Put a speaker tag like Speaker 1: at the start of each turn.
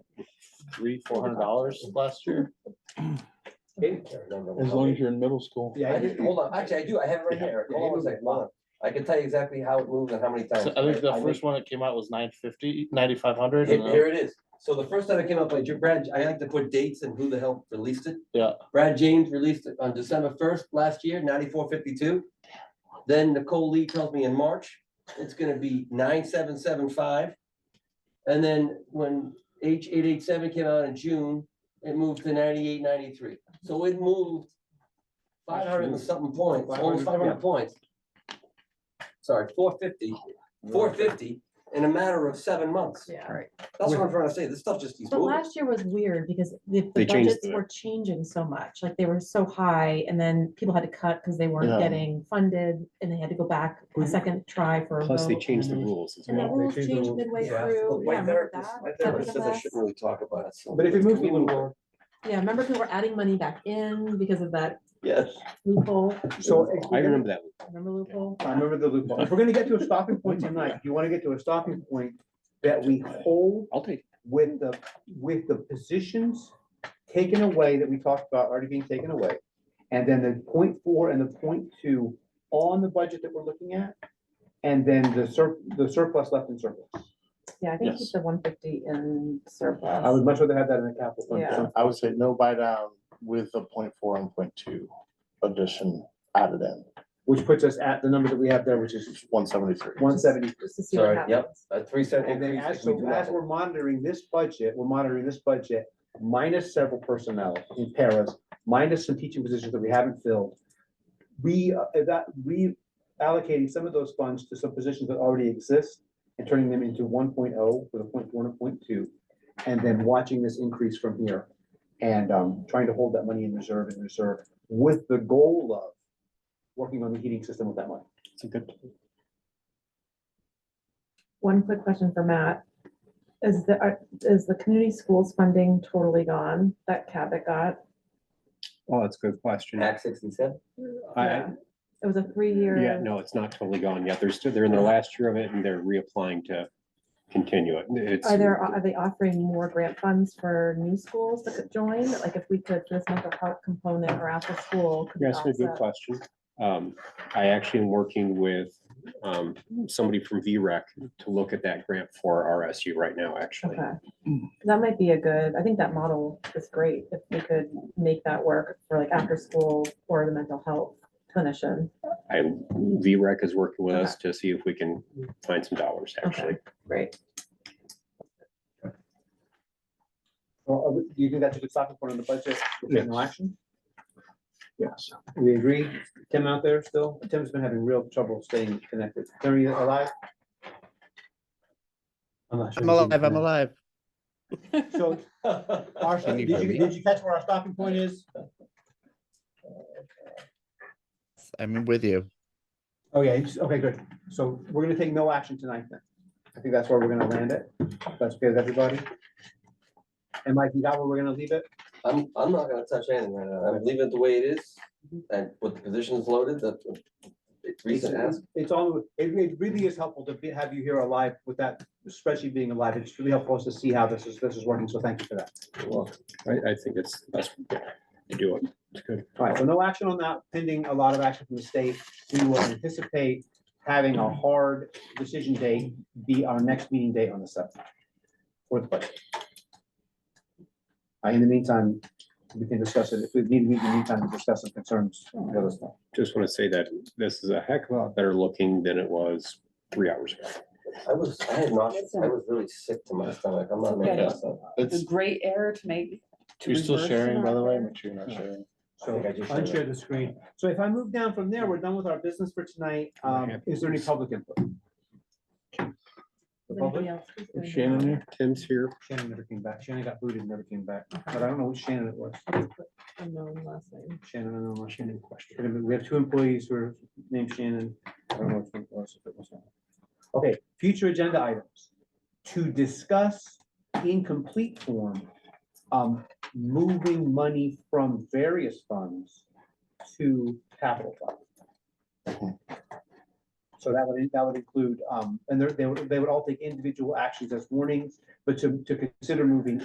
Speaker 1: three, four hundred dollars last year.
Speaker 2: As long as you're in middle school.
Speaker 3: Yeah, I did, hold on, actually, I do, I have it right
Speaker 1: Yeah.
Speaker 3: here, hold on a second, hold on. I can tell you exactly how it moves and how many times.
Speaker 1: So Oh, I think the
Speaker 3: make-
Speaker 1: first one that came out was nine fifty, ninety-five hundred. uh,
Speaker 3: Here, here it is. So the first time it came up, like Brad, I like to put dates and who the hell released it.
Speaker 1: Yeah.
Speaker 3: Brad James released it on December first last year, ninety-four fifty-two. Then Nicole Lee tells me in March, it's gonna be nine seven seven five. And then when H eight eight seven came out in June, it moved to ninety-eight ninety-three. So it moved five hundred and something points, almost five
Speaker 2: 500, yeah.
Speaker 3: hundred points. Sorry, four fifty. Four fifty in a matter of seven months.
Speaker 4: Yeah.
Speaker 3: That's what I'm trying to say. This stuff just keeps
Speaker 4: But
Speaker 3: moving.
Speaker 4: last year was weird because the, the
Speaker 5: They changed
Speaker 4: budgets
Speaker 5: it.
Speaker 4: were changing so much, like they were so high and then people had to cut because they
Speaker 1: Yeah.
Speaker 4: weren't getting funded and they had to go back a
Speaker 2: Mhm.
Speaker 4: second try for a
Speaker 5: Plus, they
Speaker 4: vote.
Speaker 5: changed the rules as
Speaker 4: And the
Speaker 5: well.
Speaker 4: rules changed midway
Speaker 3: Yeah,
Speaker 4: through.
Speaker 3: but
Speaker 4: Yeah,
Speaker 3: My
Speaker 4: remember
Speaker 3: therapist,
Speaker 4: that?
Speaker 3: my
Speaker 4: That was
Speaker 3: therapist
Speaker 4: a
Speaker 3: says I
Speaker 4: mess.
Speaker 3: shouldn't really talk about it. so
Speaker 2: But if you
Speaker 3: can
Speaker 2: move
Speaker 3: we
Speaker 2: a little
Speaker 3: move
Speaker 2: more,
Speaker 4: Yeah, remember people were adding money back in because of that
Speaker 3: Yes.
Speaker 4: loophole,
Speaker 2: so. if
Speaker 5: I
Speaker 2: we're gonna-
Speaker 5: remember that. one.
Speaker 4: remember loophole?
Speaker 2: I remember the loophole. If we're gonna get to a stopping point tonight, you wanna get to a stopping point that we hold
Speaker 5: I'll take,
Speaker 2: with the, with the positions taken away that we talked about already being taken away. And then the point four and the point two on the budget that we're looking at. And then the sur, the surplus left in surplus.
Speaker 4: Yeah, I think keep
Speaker 1: Yes.
Speaker 4: the one fifty in
Speaker 2: I
Speaker 4: surplus.
Speaker 2: would much rather have that in the capital. fund.
Speaker 4: Yeah.
Speaker 1: I would say no buy down with the point four and point two addition added in,
Speaker 2: Which puts us at the number that we have there, which is
Speaker 1: one seventy-three.
Speaker 2: one seventy.
Speaker 4: Just to see what
Speaker 3: Sorry, yep.
Speaker 4: happens.
Speaker 3: A three cent
Speaker 2: And then
Speaker 3: increase.
Speaker 2: as,
Speaker 3: if we
Speaker 2: so
Speaker 3: do
Speaker 2: as
Speaker 3: that.
Speaker 2: we're monitoring this budget, we're monitoring this budget minus several personnel in paras, minus some teaching positions that we haven't filled. We, uh, that, we allocating some of those funds to some positions that already exist and turning them into one with a point one and point two. And then watching this increase from here and, um, trying to hold that money in reserve and reserve with the goal of working on the heating system with that money.
Speaker 5: it's a good,
Speaker 4: One quick question for Matt. Is the, are- is the community schools funding totally gone, that cap that got?
Speaker 5: oh, that's a good question. I,
Speaker 3: Act sixty-seven.
Speaker 4: Yeah. It was a
Speaker 5: yeah,
Speaker 4: three-year,
Speaker 5: no, it's not totally gone yet. They're still, they're in their last year of it and they're reapplying to continue it. It's,
Speaker 4: are there, are they offering more grant funds for new schools that could join? Like if we could, this mental health component or after school. could be
Speaker 5: you're asking a good
Speaker 4: offset.
Speaker 5: question. Um, I actually am working with, um, somebody from VREC to look at that grant for RSU right now, actually.
Speaker 4: Okay, that might be a good, I think that model is great, if we could make that work for like after school or the mental health clinician.
Speaker 5: I, VREC is working with us to see if we can find some dollars, actually.
Speaker 4: Okay, great.
Speaker 2: Well, uh, do you think that's a good stopping point on the budget? with
Speaker 1: Yes.
Speaker 2: No action?
Speaker 1: Yes.
Speaker 2: We agree. Tim out there still? Tim's been having real trouble staying connected. Tim, are you alive?
Speaker 6: I'm alive, I'm alive.
Speaker 2: So, our-
Speaker 6: Can
Speaker 2: Uh, did
Speaker 6: you
Speaker 2: you,
Speaker 6: hear me?
Speaker 2: did you catch where our stopping point is?
Speaker 6: I'm with you.
Speaker 2: Oh, yeah, it's- okay, good. So we're gonna take no action tonight then. I think that's where we're gonna land it. That's okay with everybody? And Mike, you got where we're gonna leave it?
Speaker 3: I'm, I'm not gonna touch anything right now. I'm leaving it the way it is. And with the positions loaded, that's what it's recent
Speaker 2: It's-
Speaker 3: ask.
Speaker 2: It's all, it re- it really is helpful to be- have you here alive with that spreadsheet being alive. It's really helpful us to see how this is, this is working, so thank you for that.
Speaker 5: I, I think it's, that's, you do it. It's good.
Speaker 2: All right, so no action on that pending a lot of action from the state. We will anticipate having a hard decision date be our next meeting date on the subject. For the budget. Uh, In the meantime, we can discuss it. If we need, we can meantime discuss some concerns. let us know.
Speaker 5: Just want to say that this is a heck of a lot better looking than it was three hours ago.
Speaker 3: I was, I had not, I was really sick to my stomach. I'm not making
Speaker 1: Okay.
Speaker 3: this up.
Speaker 1: It's,
Speaker 7: It's a great error to make. to
Speaker 1: you're still
Speaker 7: reverse.
Speaker 1: sharing, by the way, make sure you're not sharing.
Speaker 2: So
Speaker 3: I think I just said
Speaker 2: unshare the screen. So if I move down from there, we're done with our business for tonight. Um, Is there any public input? The
Speaker 4: Does
Speaker 2: public?
Speaker 4: anybody else-
Speaker 1: Shannon here?
Speaker 5: Tim's here.
Speaker 2: Shannon never came back. Shannon got booted, and never came back. But I don't know which Shannon it was.
Speaker 4: I just put unknown last name.
Speaker 2: Shannon, I don't know. Shannon question. We have two employees who are named Shannon. I don't know which one it was, if it was not. Okay, future agenda items. To discuss in complete form, um, moving money from various funds to capital fund. So that would, that would include, um, and they're- they would, they would all take individual actions as warnings, but to, to consider moving